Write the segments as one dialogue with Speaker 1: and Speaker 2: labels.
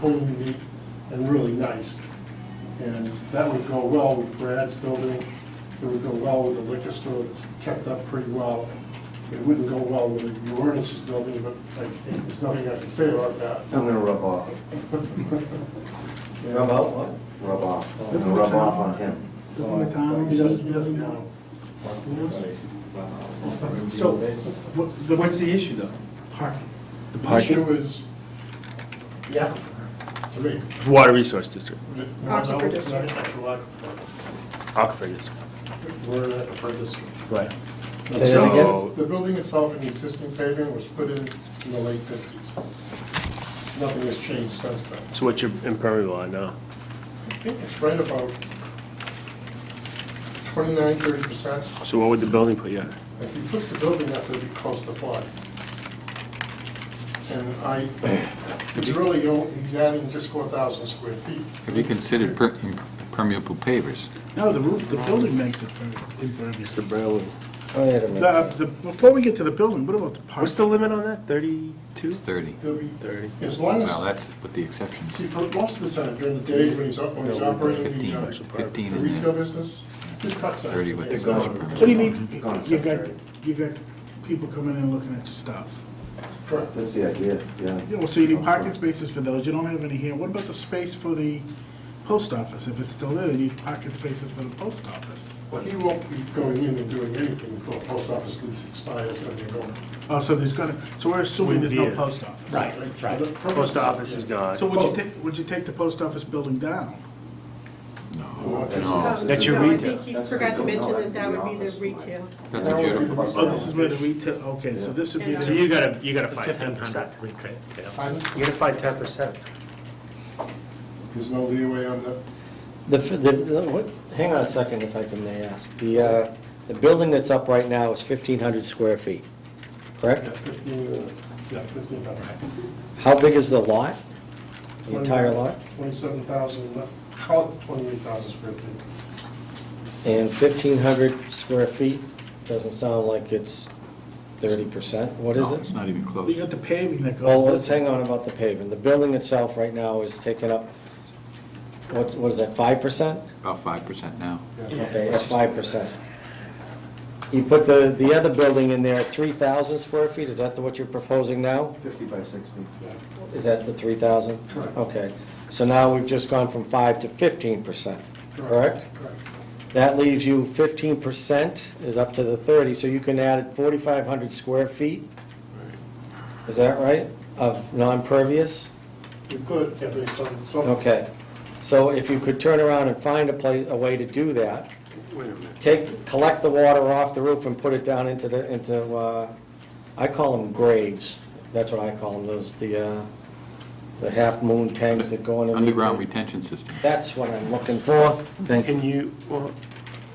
Speaker 1: clean, neat, and really nice. And that would go well with Brad's building, it would go well with the liquor store, it's kept up pretty well. It wouldn't go well with Uranus's building, but like, there's nothing I can say about that.
Speaker 2: I'm gonna rub off.
Speaker 1: Yeah.
Speaker 3: out what?
Speaker 2: Rub off. I'm gonna rub off on him.
Speaker 4: Doesn't the town?
Speaker 1: He doesn't, he doesn't know.
Speaker 4: So, what- what's the issue though? Parking.
Speaker 1: The
Speaker 5: parking-
Speaker 1: issue is the aquifer, to me.
Speaker 5: Water Resource District,
Speaker 1: No,
Speaker 6: Aquifer
Speaker 1: no, it's not
Speaker 6: district.
Speaker 1: actual aquifer.
Speaker 5: Aquifer District.
Speaker 1: We're in aquifer district.
Speaker 5: Right.
Speaker 1: So
Speaker 3: Say that again?
Speaker 1: The building itself and the existing pavement was put in in the late fifties. Nothing has changed since then.
Speaker 5: So what's your impermeable on uh, now?
Speaker 1: I think it's right about 29, 30 percent.
Speaker 5: So what would the building put you at?
Speaker 1: If he puts the building up, it'd be close to flood. And I, it's really, only- he's adding just four thousand square feet.
Speaker 7: Have you considered per- impermeable pavers?
Speaker 4: No, the roof, the building makes it per- impervious.
Speaker 5: Mr. Berlin.
Speaker 3: Wait a
Speaker 4: The,
Speaker 3: minute.
Speaker 4: the, before we get to the building, what about the
Speaker 5: What's the
Speaker 4: parking?
Speaker 5: limit on that, thirty-two?
Speaker 7: Thirty.
Speaker 1: It'll be,
Speaker 5: Thirty.
Speaker 1: as long as,
Speaker 7: Well, that's with the exceptions.
Speaker 1: see, for most of the time during the day, when he's up, when he's
Speaker 7: No, we're doing
Speaker 1: operating the,
Speaker 7: 15,
Speaker 1: uh,
Speaker 7: 15
Speaker 1: the
Speaker 7: in there.
Speaker 1: retail business, he cuts out.
Speaker 7: 30 with the
Speaker 1: days.
Speaker 7: garage
Speaker 4: What do you mean,
Speaker 2: It's gone
Speaker 4: you got,
Speaker 2: secretary.
Speaker 4: you got people coming in looking at your stuff?
Speaker 1: Correct.
Speaker 2: That's the idea, yeah.
Speaker 4: Yeah, well, so you need parking spaces for those, you don't have any here, what about the space for the post office? If it's still there, you need parking spaces for the post office.
Speaker 1: But he won't be going in and doing anything until the post office lease expires and they're going.
Speaker 4: Oh, so there's gonna, so we're assuming there's no
Speaker 5: Wouldn't be it.
Speaker 4: post office?
Speaker 1: Like, for the purpose
Speaker 5: Post
Speaker 1: of-
Speaker 5: office is gone.
Speaker 4: So would you take, would you take the post office building down?
Speaker 1: No, that's-
Speaker 2: No.
Speaker 5: That's your
Speaker 6: No, I
Speaker 5: retail.
Speaker 6: think he forgot to mention that that would be the retail.
Speaker 7: That's a beautiful,
Speaker 4: Oh, this is where the retail, okay, so this would be.
Speaker 6: Yeah.
Speaker 5: So
Speaker 4: the-
Speaker 5: you gotta, you gotta find ten percent. You gotta
Speaker 1: Pardon?
Speaker 5: find ten percent.
Speaker 1: There's no leeway on the,
Speaker 3: The, f- the, the- what, hang on a second if I can may ask. The, uh, the building that's up right now is fifteen hundred square feet,
Speaker 1: yeah,
Speaker 3: correct?
Speaker 1: fifteen, uh, yeah, fifteen hundred.
Speaker 3: How big is the lot? The entire lot?
Speaker 1: Twenty-seven thousand, call it twenty-eight thousand square feet.
Speaker 3: And fifteen hundred square feet doesn't sound like it's thirty percent, what is
Speaker 7: no, it's
Speaker 3: it? Oh,
Speaker 7: not even
Speaker 4: You
Speaker 7: close.
Speaker 4: got the paving that goes.
Speaker 3: Well,
Speaker 4: with
Speaker 3: let's
Speaker 4: it.
Speaker 3: hang on about the paving. The building itself right now is taken up, what's, what is that, five percent?
Speaker 7: About five percent now.
Speaker 3: Okay, that's five percent. You put the, the other building in there, three thousand square feet, is that the- what you're proposing now?
Speaker 2: Fifty by sixty.
Speaker 1: Yeah.
Speaker 3: Is that the three thousand?
Speaker 1: Correct.
Speaker 3: Okay, so now we've just gone from five to fifteen percent, correct?
Speaker 1: Correct.
Speaker 3: That leaves you fifteen percent is up to the thirty, so you can add forty-five hundred square feet? Is that right, of non-pervious?
Speaker 1: You could, yeah, based on some.
Speaker 3: Okay, so if you could turn around and find a place, a way to do that,
Speaker 5: Wait a minute.
Speaker 3: take, collect the water off the roof and put it down into the, into, uh, I call them graves. That's what I call them, those, the, uh, the half-moon tanks that go underneath.
Speaker 7: Underground
Speaker 3: the-
Speaker 7: retention system.
Speaker 3: That's what I'm looking for. Thank you.
Speaker 5: Can you, well,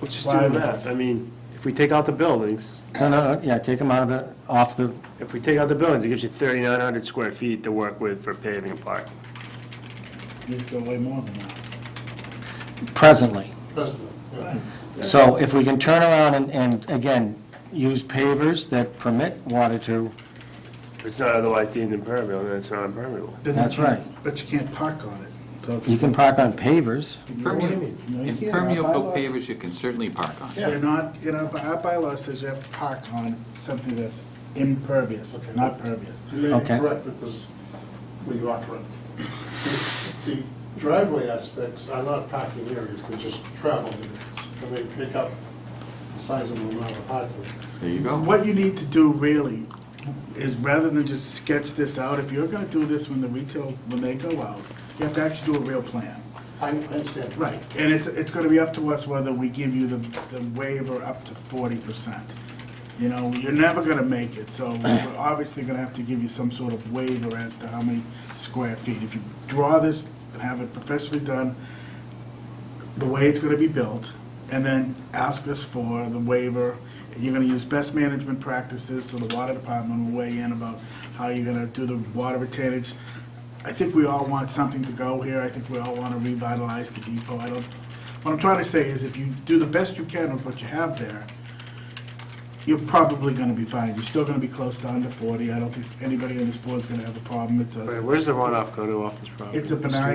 Speaker 5: let's just do the math. I mean, if we take out the buildings,
Speaker 3: No, no, yeah, take them out of the, off the,
Speaker 5: if we take out the buildings, it gives you thirty-nine hundred square feet to work with for paving and parking.
Speaker 4: These go way more than that.
Speaker 3: presently.
Speaker 1: President, yeah.
Speaker 3: So if we can turn around and, and again, use pavers that permit water to,
Speaker 5: If it's not otherwise deemed impermeable, then it's not impermeable.
Speaker 4: Then
Speaker 3: That's
Speaker 4: you can't-
Speaker 3: right.
Speaker 4: But you can't park on it, so. if
Speaker 3: you can park on pavers.
Speaker 7: Impermeable
Speaker 4: No, you can't.
Speaker 7: impermeable
Speaker 4: Our bylaws-
Speaker 7: pavers you can certainly park on.
Speaker 4: They're not, you know, our bylaw says you have to park on something that's impervious,
Speaker 1: Okay.
Speaker 4: not pervious.
Speaker 1: You may be
Speaker 3: Okay.
Speaker 1: correct because we are correct. It's- The driveway aspects are not parking areas, they're just travel areas. And they take up the size of the amount of parking.
Speaker 7: There you go.
Speaker 4: What you need to do really is rather than just sketch this out, if you're gonna do this when the retail, when they go out, you have to actually do a real plan.
Speaker 1: I I understand.
Speaker 4: Right, and it's, it's gonna be up to us whether we give you the, the waiver up to forty percent. You know, you're never gonna make it, so we're obviously gonna have to give you some sort of waiver as to how many square feet. If you draw this and have it professionally done, the way it's gonna be built, and then ask us for the waiver. You're gonna use best management practices, so the water department will weigh in about how you're gonna do the water retainage. I think we all want something to go here, I think we all wanna revitalize the depot, I don't, what I'm trying to say is if you do the best you can with what you have there, you're probably gonna be fine. You're still gonna be close to under forty. I don't think anybody on this board's gonna have a problem. It's a,
Speaker 5: Wait, Where's the runoff go to off this property?
Speaker 4: it's a benign